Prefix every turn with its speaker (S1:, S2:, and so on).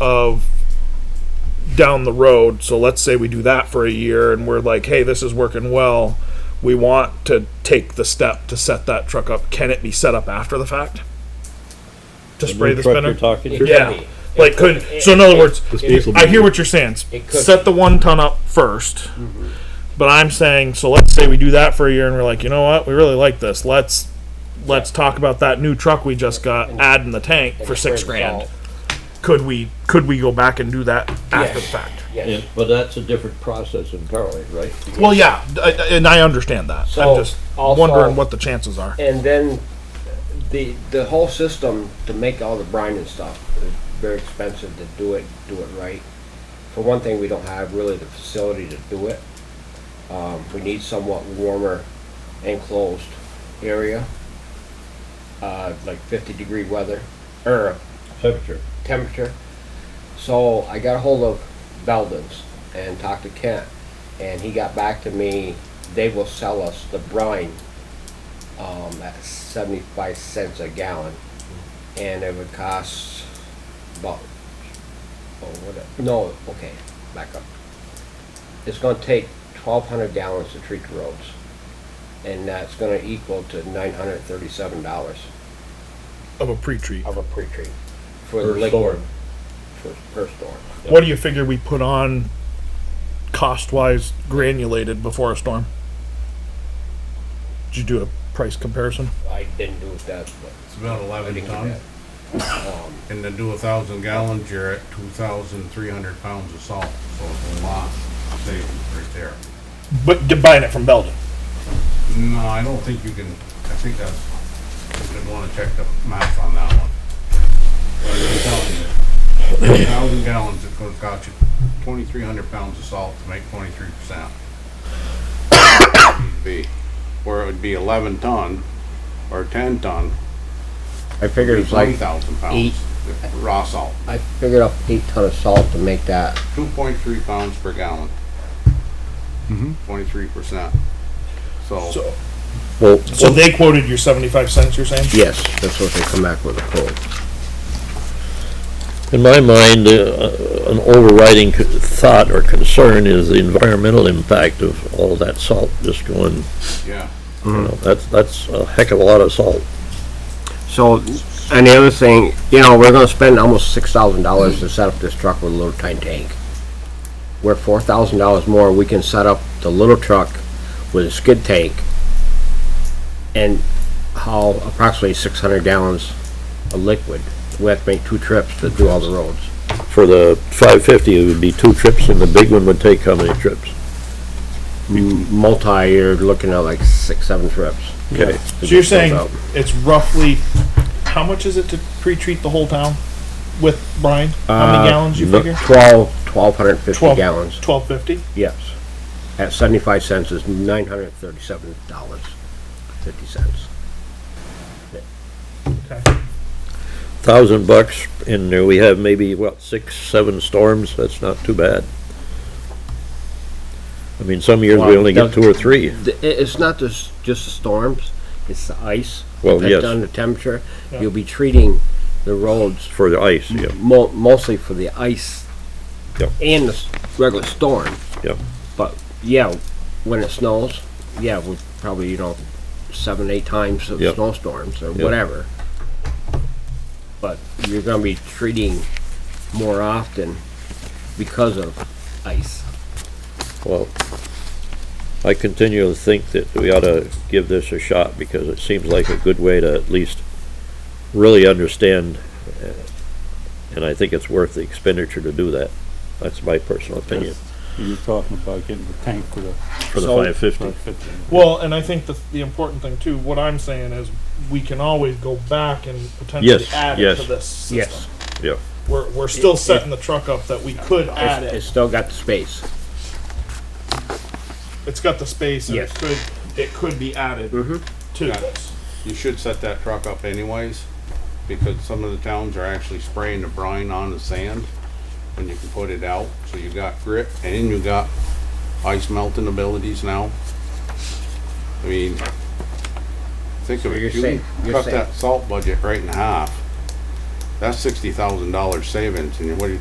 S1: of down the road. So let's say we do that for a year and we're like, hey, this is working well. We want to take the step to set that truck up. Can it be set up after the fact? To spray the
S2: Truck
S1: spinner?
S2: you're talking to?
S3: Could
S1: Yeah.
S3: be.
S1: Like,
S3: It
S1: could,
S3: could-
S1: so in other
S3: it-
S1: words,
S3: it-
S2: space will be-
S1: I hear what you're saying.
S3: It could Mm-hmm.
S1: Set the one ton up first. But I'm saying, so let's say we do that for a year and we're like, you know what? We really like this. Let's, let's talk about that new truck we just got, add in the tank for six
S3: Spray the
S1: grand.
S3: salt.
S1: Could we, could we go back and do that after the
S3: Yes.
S1: fact?
S2: Yeah,
S3: Yes.
S2: but that's a different process entirely, right?
S1: Well, yeah, I- I- and I understand that.
S3: So,
S1: I'm just
S3: also-
S1: wondering what the chances are.
S3: And then the, the whole system to make all the brine and stuff is very expensive to do it, do it right. For one thing, we don't have really the facility to do it. Um, we need somewhat warmer enclosed area, uh, like fifty degree weather, or
S2: Temperature.
S3: temperature. So I got a hold of Belden's and talked to Kent, and he got back to me. They will sell us the brine um, at 75 cents a gallon, and it would cost about oh what a- no okay back up. It's going to take 1,200 gallons to treat the roads, and that's going to equal to 937 dollars
S1: Of a pre-treat.
S3: of a pre-treat for the
S2: Per
S3: liquid
S2: storm.
S3: for, per storm.
S1: What do you figure we put on cost-wise granulated before a storm? Did you do a price comparison?
S3: I didn't do that, but
S4: It's about
S3: I
S4: eleven
S3: didn't
S4: ton,
S3: get that. Um,
S4: and to do a thousand gallons, you're at two thousand three hundred pounds of salt, so it's a lot savings right there.
S1: But d- buying it from Belden.
S4: No, I don't think you can, I think that's, you'd wanna check the math on that one. But I'm telling you, a thousand gallons, it's gonna cost you twenty-three hundred pounds of salt to make twenty-three percent. Be, where it would be eleven ton, or ten ton,
S3: I figured it's
S4: nine
S3: like,
S4: thousand
S3: eight-
S4: pounds, of raw salt.
S3: I figured up eight ton of salt to make that.
S4: Two point three pounds per gallon. Twenty-three percent. So,
S1: So,
S3: Well,
S1: so they quoted your seventy-five cents. You're saying?
S3: yes, that's what they come back with a quote.
S2: In my mind, uh, an overriding c- thought or concern is the environmental impact of all that salt just going,
S4: yeah,
S2: you know, that's, that's a heck of a lot of salt.
S3: So, and the other thing, you know, we're gonna spend almost six thousand dollars to set up this truck with a little tiny tank. We're four thousand dollars more, we can set up the little truck with a skid tank and haul approximately six hundred gallons of liquid. We have to make two trips to do all the roads.
S2: For the five fifty, it would be two trips, and the big one would take how many trips?
S3: M- Multi, you're looking at like six, seven trips.
S2: Okay.
S3: to
S1: So you're
S3: get those
S1: saying
S3: out.
S1: it's roughly how much is it to pre-treat the whole town with brine? How many
S3: Uh,
S1: gallons you
S2: no-
S1: figure?
S3: Twelve, twelve hundred and fifty
S1: Twelve
S3: gallons,
S1: Twelve fifty.
S3: yes. At seventy-five cents is nine hundred and thirty-seven dollars, fifty cents.
S2: Thousand bucks, and there we have maybe, what, six, seven storms, that's not too bad. I mean, some years we
S3: Well,
S2: only get
S3: the-
S2: two or three.
S3: The- i- It's not just, just the storms, it's the ice.
S2: Well, yes.
S3: Depends on the temperature.
S1: Yeah.
S3: You'll be treating the roads
S2: For the ice, yeah.
S3: mo- mostly for the ice
S2: Yep.
S3: and the s- regular storm.
S2: Yep.
S3: But, yeah, when it snows, yeah, we probably, you know, seven, eight times of
S2: Yep.
S3: snowstorms or whatever. But you're gonna be treating more often because of ice.
S2: Well, I continue to think that we ought to give this a shot because it seems like a good way to at least really understand, uh, and I think it's worth the expenditure to do that. That's my personal opinion
S5: You're talking about getting the tank for the
S2: for the
S1: So-
S2: five fifty.
S5: five fifty.
S1: Well, and I think the, the important thing too, what I'm saying is we can always go back and potentially
S2: Yes,
S1: add
S2: yes,
S1: it to this system.
S3: Yes.
S2: Yeah.
S1: We're, we're still setting the truck up that we could add
S3: It's
S1: it.
S3: it's still got the space.
S1: It's got the space and
S3: Yes.
S1: it could, it could be added to this.
S4: you should set that truck up anyways, because some of the towns are actually spraying the brine on the sand when you can put it out, so you got grit, and you got ice melting abilities now. I mean, think of
S3: So
S4: it,
S3: you're
S4: you can
S3: safe, you're
S4: cut
S3: safe.
S4: that salt budget right in half, that's sixty thousand dollars savings, and what do you